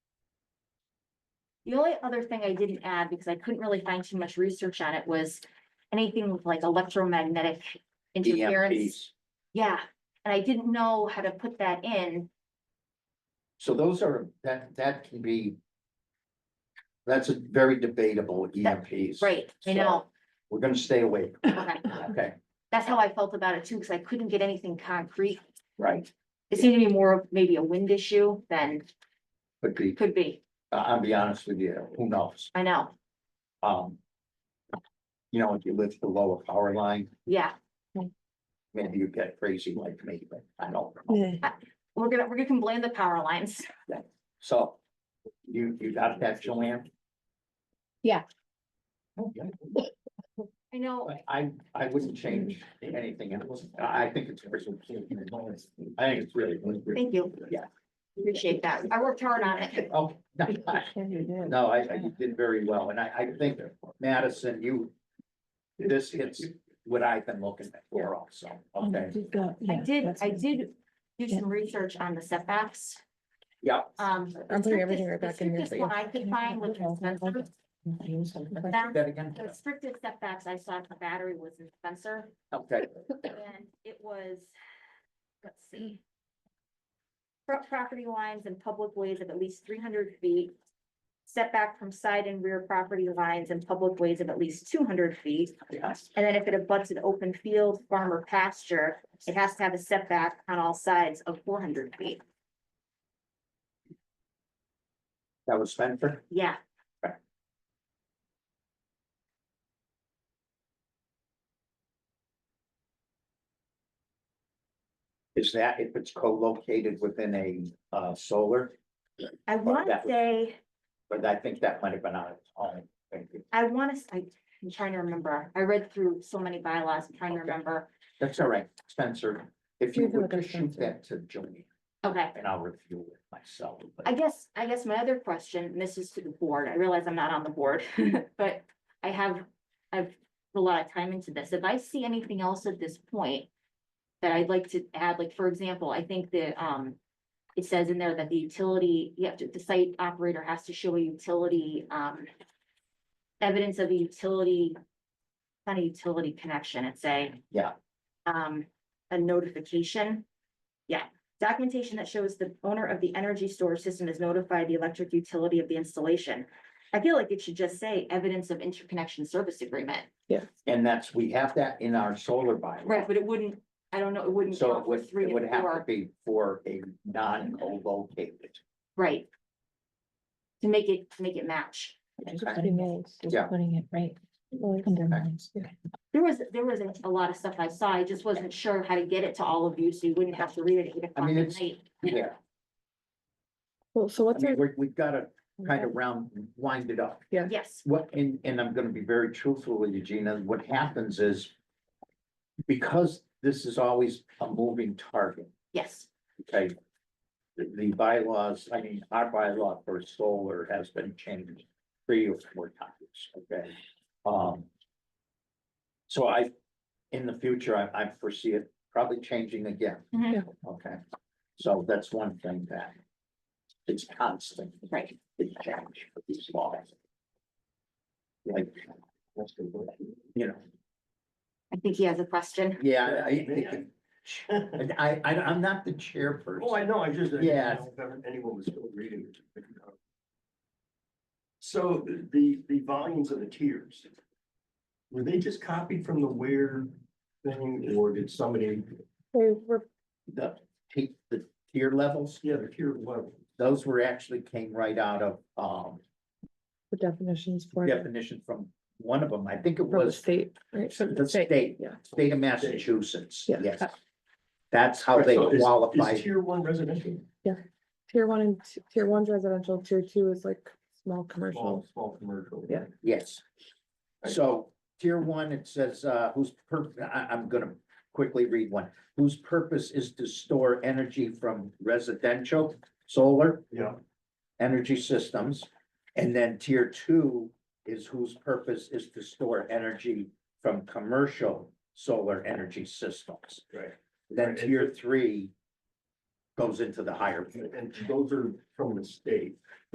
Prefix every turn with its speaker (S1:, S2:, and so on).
S1: The only other thing I didn't add, because I couldn't really find too much research on it, was anything with like electromagnetic interference.
S2: EMPs.
S1: Yeah, and I didn't know how to put that in.
S2: So those are, that, that can be. That's a very debatable
S1: That-
S2: EMPs.
S1: Right, I know,
S2: We're gonna stay away. from
S1: okay.
S2: that. Okay,
S1: That's how I felt about it too, because I couldn't get anything concrete.
S2: right,
S1: It seemed to be more of maybe a wind issue than
S2: could be,
S1: could be.
S2: I- I'll be honest with you, who knows?
S1: I know,
S2: Um. You know, if you live below a power line,
S1: yeah.
S2: maybe you get crazy like me, but I don't. know.
S3: Yeah.
S1: We're gonna, we're gonna blame the power lines.
S2: So. You, you got that, Joanne?
S3: Yeah.
S2: Okay.
S1: I know,
S2: But I, I wouldn't change anything else. I I think it's. I think it's really.
S1: thank you,
S2: Yeah.
S1: appreciate that. I worked hard on it.
S2: Oh, no, I-
S3: Well,
S2: no, I, I you did very well, and I, I think Madison, you. This hits what I've been looking for also, okay,
S1: I did, I did do some research on the setbacks.
S2: yeah,
S1: Um. the
S3: I'll bring everything
S1: strictest- the
S3: right back in here,
S1: strictest One I could find with the Spencer,
S2: Say that again,
S1: the strictest setbacks I saw at the battery was in Spencer,
S2: okay,
S1: and it was, let's see. Front property lines and public ways of at least three hundred feet. Setback from side and rear property lines and public ways of at least two hundred feet.
S2: yes,
S1: And then if it abuts an open field, farm or pasture, it has to have a setback on all sides of four hundred feet.
S2: that was Spencer,
S1: Yeah,
S2: is that if it's co-located within a, uh, solar?
S1: I want to
S2: that was-
S1: say,
S2: But I think that might have been on its own, thank you,
S1: I want to, I'm trying to remember. I read through so many bylaws, I'm trying to
S2: Okay.
S1: remember.
S2: that's all right, Spencer, if you
S3: Maybe
S2: would
S3: look at
S2: just shoot
S3: Spencer.
S2: that to Joanne,
S1: Okay,
S2: and I'll review it myself. but-
S1: I guess, I guess my other question, and this is to the board. I realize I'm not on the board, but I have, I've put a lot of time into this. If I see anything else at this point that I'd like to add, like, for example, I think the, um, it says in there that the utility, you have to, the site operator has to show a utility, um, evidence of a utility, not a utility connection, it's a.
S2: Yeah.
S1: Um, a notification. Yeah, documentation that shows the owner of the energy storage system has notified the electric utility of the installation. I feel like it should just say evidence of interconnection service agreement.
S2: And that's, we have that in our solar bylaw.
S1: Right, but it wouldn't, I don't know, it wouldn't
S2: So
S1: count
S2: it
S1: for
S2: would,
S1: three
S2: it would
S1: and
S2: have to
S1: four,
S2: be for a non-co-located.
S1: right? To make it, to make it match.
S2: Yeah.
S3: Putting it right. under lines.
S1: There was, there was a lot of stuff I saw, I just wasn't sure how to get it to all of you, so you wouldn't have to read it at eight
S2: I
S1: o'clock
S2: mean,
S1: at
S2: it's-
S1: night.
S2: Yeah,
S3: Well, so
S2: I
S3: what's
S2: mean,
S3: our?
S2: we, we've got to kind of round, wind it up.
S1: Yes,
S2: What, and, and I'm going to be very truthful with you, Gina, what happens is because this is always a moving target,
S1: yes,
S2: okay? The, the bylaws, I mean, our bylaw for solar has been changed three or four times, okay? Um. So I, in the future, I, I foresee it probably changing again.
S1: Mhm.
S3: Yeah.
S2: Okay, so that's one thing that it's constant,
S1: right,
S2: it's change for these laws. Like, you know,
S1: I think he has a question.
S2: yeah, I, I think it- and I, I, I'm not the chairperson.
S4: Oh, I know, I just. I didn't
S2: Yeah.
S4: know if Anyone was still reading. it. So the, the volumes of the tiers. Were they just copied from the where thing or did somebody,
S3: They were,
S2: The, t- the tier levels,
S4: yeah, the tier level?
S2: those were actually came right out of, um,
S3: the definitions for it,
S2: definition from one of them, I think it
S3: from the
S2: was
S3: state, right? From
S2: the state,
S3: Yeah.
S2: state of Massachusetts,
S3: Yeah.
S2: yes. That's how they
S4: So is- is
S2: qualify.
S4: Tier one residential?
S3: Tier one and t- tier one's residential, tier two is like small commercial.
S4: Small, small commercial.
S3: Yeah.
S2: Yes.
S4: Right.
S2: So tier one, it says, uh, whose purpose? I, I'm gonna quickly read one, whose purpose is to store energy from residential, solar,
S4: Yeah,
S2: energy systems. And then tier two is whose purpose is to store energy from commercial solar energy systems.
S4: right.
S2: Then
S4: Right.
S2: tier three goes into the higher.
S4: And those are from the state.